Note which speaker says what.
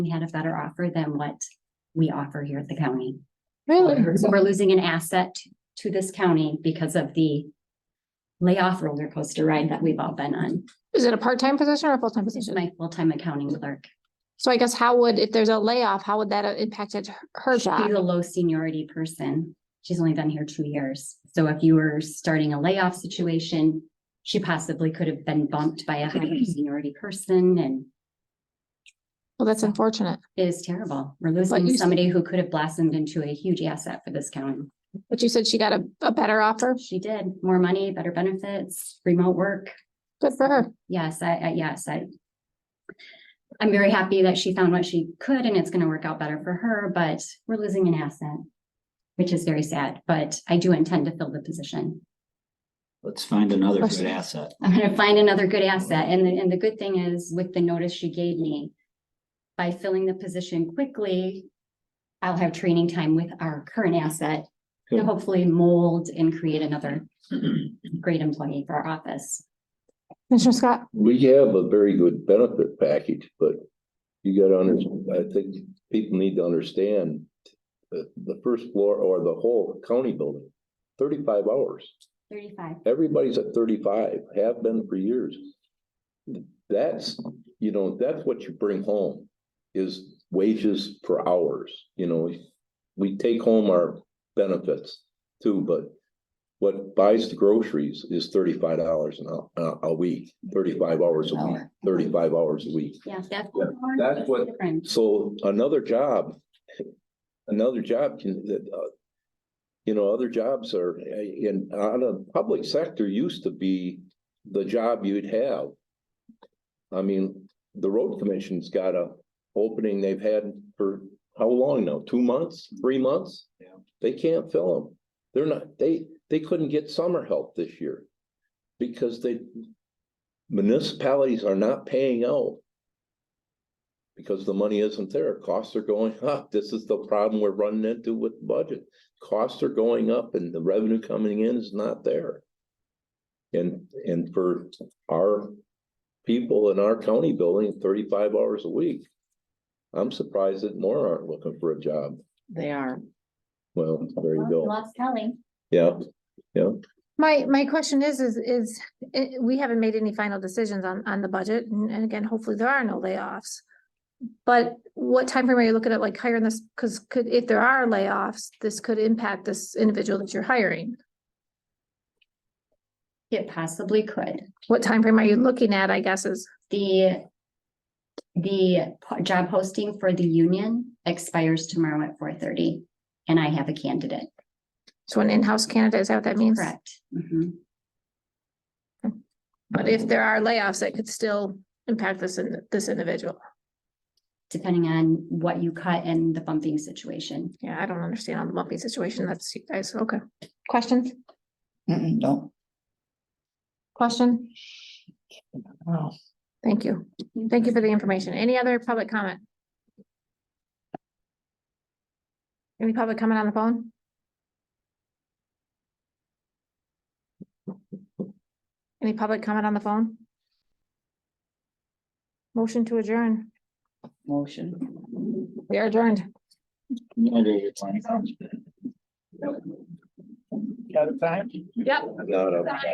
Speaker 1: we had a better offer than what we offer here at the county.
Speaker 2: Really?
Speaker 1: So we're losing an asset to this county because of the layoff roller coaster ride that we've all been on.
Speaker 2: Is it a part-time position or a full-time
Speaker 1: This is
Speaker 2: position?
Speaker 1: my full-time accounting clerk.
Speaker 2: So I guess how would, if there's a layoff, how would that have impacted her- her job?
Speaker 1: She's a low seniority person. She's only been here two years. So if you were starting a layoff situation, she possibly could have been bumped by a higher seniority person and
Speaker 2: Well, that's unfortunate.
Speaker 1: it is terrible. We're
Speaker 2: But you
Speaker 1: losing
Speaker 2: s-
Speaker 1: somebody who could have blossomed into a huge asset for this county.
Speaker 2: But you said she got a, a better offer.
Speaker 1: She did. More money, better benefits, remote work.
Speaker 2: Good for her.
Speaker 1: Yes, I, I, yes, I. I'm very happy that she found what she could and it's gonna work out better for her, but we're losing an asset. Which is very sad, but I do intend to fill the position.
Speaker 3: Let's find another good
Speaker 2: Question.
Speaker 3: asset.
Speaker 1: I'm gonna find another good asset and the, and the good thing is with the notice she gave me. By filling the position quickly. I'll have training time with our current asset to
Speaker 3: Good.
Speaker 1: hopefully mold and create another great employee for our office.
Speaker 2: Commissioner Scott,
Speaker 4: We have a very good benefit package, but you gotta under, I think people need to understand. The, the first floor or the whole county building, thirty-five hours,
Speaker 1: Thirty-five,
Speaker 4: everybody's at thirty-five, have been for years. That's, you know, that's what you bring home, is wages for hours, you know. We take home our benefits too, but what buys the groceries is thirty-five dollars an hour, a, a week, thirty-five hours a week
Speaker 1: Hour.
Speaker 4: thirty-five hours a week.
Speaker 1: yeah, that's.
Speaker 4: that's what-
Speaker 1: Different.
Speaker 4: So another job, another job can, that, uh, you know, other jobs are, uh, in, on a public sector used to be the job you'd have. I mean, the road commission's got a opening they've had for how long now? Two months, three months?
Speaker 3: Yeah.
Speaker 4: They can't fill them. They're not, they, they couldn't get summer help this year because they municipalities are not paying out because the money isn't there. Costs are going up. This is the problem we're running into with budget. Costs are going up and the revenue coming in is not there. And, and for our people in our county building, thirty-five hours a week. I'm surprised that more aren't looking for a job.
Speaker 5: They are.
Speaker 4: Well, there you go.
Speaker 1: Lost Kelly.
Speaker 4: Yeah, yeah.
Speaker 2: my, my question is, is, is, eh, we haven't made any final decisions on, on the budget. And and again, hopefully there are no layoffs. But what timeframe are you looking at, like hiring this? Because could, if there are layoffs, this could impact this individual that you're hiring.
Speaker 1: It possibly could.
Speaker 2: What timeframe are you looking at, I guess, is
Speaker 1: The the po- job posting for the union expires tomorrow at four thirty, and I have a candidate.
Speaker 2: So an in-house candidate, is that what that means?
Speaker 1: Correct. Mhm.
Speaker 2: But if there are layoffs, that could still impact this, in- this individual.
Speaker 1: Depending on what you cut and the bumping situation.
Speaker 2: Yeah, I don't understand on the bumpy situation. That's you guys. Okay. Questions?
Speaker 5: Mm-mm, No.
Speaker 2: Question?
Speaker 5: Wow.
Speaker 2: Thank you. Thank you for the information. Any other public comment? Any public comment on the phone? Any public comment on the phone? Motion to adjourn.
Speaker 5: Motion.
Speaker 2: We are adjourned.
Speaker 5: Got a time?
Speaker 4: Not a-